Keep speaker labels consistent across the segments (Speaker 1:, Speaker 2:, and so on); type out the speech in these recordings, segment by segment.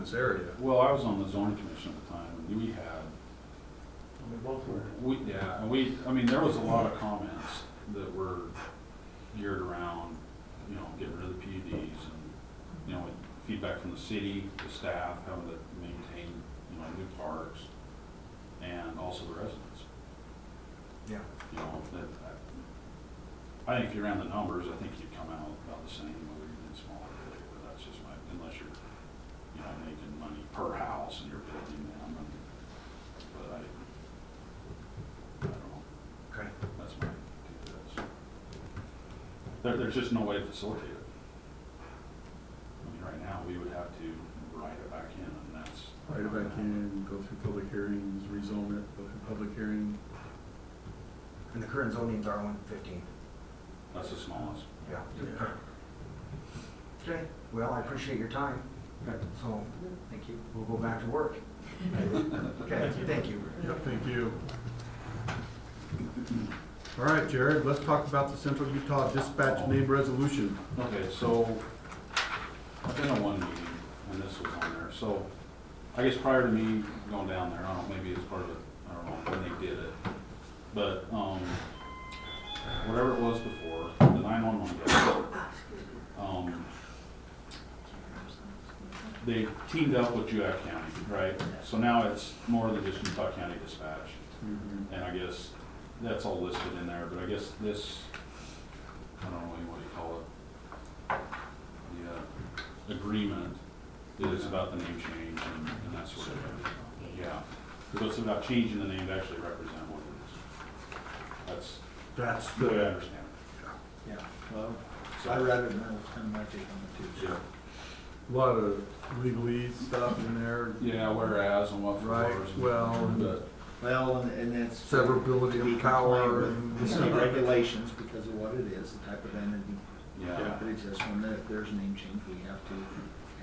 Speaker 1: this area.
Speaker 2: Well, I was on the zoning commission at the time, and we had,
Speaker 3: We both were.
Speaker 2: we, yeah, and we, I mean, there was a lot of comments that were geared around, you know, getting rid of the PUDs and, you know, with feedback from the city, the staff, having to maintain, you know, new parks, and also the residents.
Speaker 1: Yeah.
Speaker 2: you know, that, I- I think if you ran the numbers, I think you'd come out about the same, whether you did smaller or bigger, but that's just my, unless you're, you know, making money per house and you're building them, and, but I, I don't know,
Speaker 1: Okay.
Speaker 2: that's my, take on this. There, there's just no way to facilitate it. I mean, right now, we would have to write it back in, and that's.
Speaker 4: Write it back in, go through public hearings, rezone it, go through public hearing.
Speaker 1: And the current zoning's R one fifteen.
Speaker 2: That's the smallest.
Speaker 1: Yeah.
Speaker 4: Yeah.
Speaker 1: Okay, well, I appreciate your time. So, thank you. We'll go back to work. Okay, thank you.
Speaker 4: Yeah, thank you. All right, Jared, let's talk about the Central Utah Dispatch Name Resolution.
Speaker 2: Okay, so, I've been to one meeting, and this was on there, so, I guess prior to me going down there, I don't know, maybe it's part of it, I don't know, when they did it, but, um, whatever it was before, the nine-one-one guy, um, they teamed up with Juak County, right? So now it's more than just Utah County Dispatch,
Speaker 5: Mm-hmm.
Speaker 2: and I guess that's all listed in there, but I guess this, I don't know what you call it, the uh, agreement that is about the name change and and that sort of thing. Yeah, because it's about changing the name to actually represent what it is.
Speaker 4: That's
Speaker 2: That's the way I
Speaker 4: the,
Speaker 2: understand
Speaker 6: Yeah, well,
Speaker 2: it.
Speaker 6: so I read it and that was kind of my take on it too.
Speaker 2: Yeah.
Speaker 6: so.
Speaker 4: lot of legalese stuff in there,
Speaker 2: Yeah, whereas and what for.
Speaker 4: right?
Speaker 2: and-
Speaker 4: Well, and
Speaker 2: But,
Speaker 6: Well, and, and that's.
Speaker 4: severability
Speaker 6: We
Speaker 4: of
Speaker 6: comply
Speaker 4: power
Speaker 6: with
Speaker 4: and.
Speaker 6: the state regulations because of what it is, the type of entity
Speaker 2: yeah,
Speaker 6: that exists. When there- if there's a name change, we have to,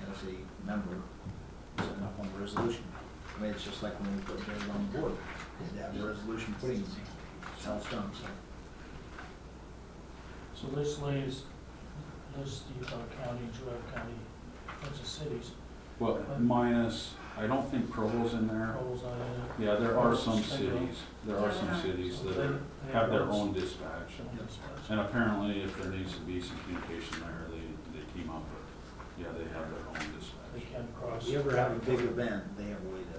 Speaker 6: as a member, sign up on the resolution. I mean, it's just like when we put Jared on the board, we had to have a resolution putting him, it's how it's done, so.
Speaker 3: So this lays, lists Utah County, Juab County, bunch of cities,
Speaker 2: well, minus, I don't think Provo's in there.
Speaker 3: Coles, I,
Speaker 2: Yeah, there are some cities, there are some cities that are- have their own dispatch. And apparently, if there needs to be some communication there, they, they team up with, yeah, they have their own
Speaker 3: They
Speaker 2: dispatch.
Speaker 3: can cross.
Speaker 6: If you ever have a big event, they have a way to.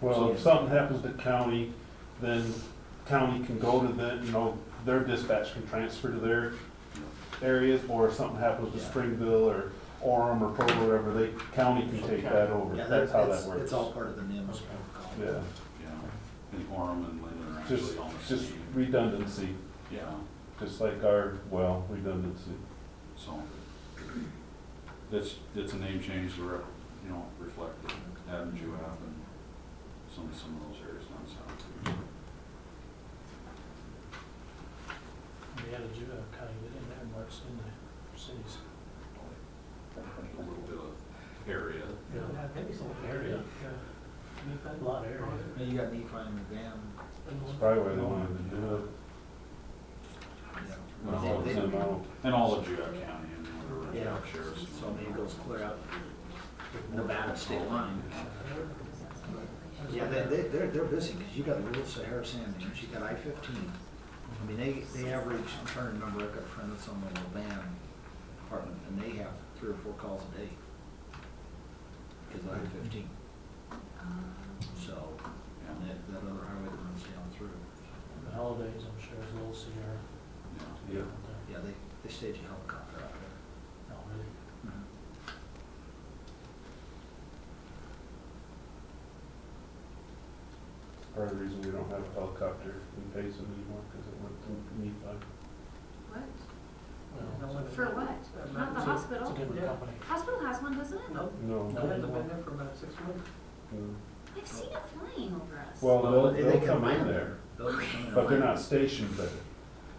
Speaker 7: Well, if something happens to county, then county can go to the, you know, their dispatch can transfer to their areas, or if something happens to
Speaker 6: Yeah.
Speaker 7: Springville or Orem or Provo, or whatever, they, county can take that over.
Speaker 6: Yeah,
Speaker 7: That's how
Speaker 6: it's-
Speaker 7: that works.
Speaker 6: It's all part of the NIMS protocol.
Speaker 7: Yeah,
Speaker 2: Yeah, and Orem and Linden are
Speaker 7: just,
Speaker 2: actually on the
Speaker 7: just
Speaker 2: same,
Speaker 7: redundancy,
Speaker 2: yeah,
Speaker 7: just like our, well, redundancy.
Speaker 2: so. It's, it's a name change to, re- you know, reflect the Adam Jew and some, some of those areas down south.
Speaker 3: They had a Juab County, they didn't have much in the cities.
Speaker 2: A little bit of area,
Speaker 3: Maybe some area. yeah. We've had a lot of area.
Speaker 6: Now you got Nephi and Van,
Speaker 7: That's probably why they wanted to do
Speaker 6: you
Speaker 2: Well,
Speaker 6: know.
Speaker 7: it. It's
Speaker 6: They-
Speaker 7: in Mount-
Speaker 2: and all of Jew County and whatever,
Speaker 6: Yeah,
Speaker 2: yeah, sheriffs.
Speaker 6: so maybe it goes clear out Nevada state line. Yeah, they, they, they're, they're busy, because you got the Little Sahara Sand Dunes, you got I fifteen. I mean, they, they average, I'm trying to remember, I've got a friend that's on the Levan department, and they have three or four calls a day. Because I fifteen, so, and
Speaker 2: Yeah,
Speaker 6: that, that other highway that runs down through.
Speaker 3: The holidays, I'm sure, is a little severe.
Speaker 2: yeah.
Speaker 7: Yeah.
Speaker 6: Yeah, they, they stage a helicopter out there.
Speaker 3: No, really.
Speaker 7: Part of the reason we don't have a helicopter in Payson anymore, because it went to Nephi.
Speaker 5: What?
Speaker 3: Well, it's a-
Speaker 5: For what?
Speaker 3: it's
Speaker 5: Not the
Speaker 3: a- It's
Speaker 5: hospital?
Speaker 3: a different company.
Speaker 5: Hospital has one, doesn't it?
Speaker 7: No.
Speaker 3: No, they won't.
Speaker 7: no.
Speaker 5: I've seen it flying over us.
Speaker 7: Well, they'll,
Speaker 6: They-
Speaker 7: they'll
Speaker 6: they
Speaker 7: come in
Speaker 6: land
Speaker 7: there,
Speaker 6: They'll come in.
Speaker 7: but they're not stationed there.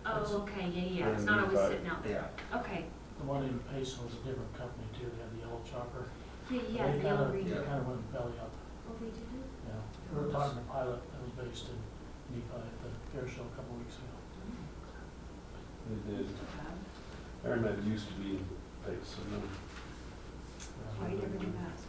Speaker 5: Oh, okay, yeah, yeah, it's
Speaker 7: Yeah,
Speaker 5: not always
Speaker 7: but-
Speaker 5: sitting out there.
Speaker 6: Yeah,
Speaker 5: Okay,
Speaker 3: The one in Payson was a different company too, they had the yellow chopper.
Speaker 5: yeah, yeah,
Speaker 3: They
Speaker 5: the
Speaker 3: kinda-
Speaker 5: yellow region.
Speaker 3: They kind of went belly up,
Speaker 5: Well, Oh, they did it.
Speaker 3: yeah. We were talking to a pilot that was based in Nephi at the air show a couple weeks ago.
Speaker 7: They did. Airmen used to be in Payson.
Speaker 5: Why Oh, you never do that?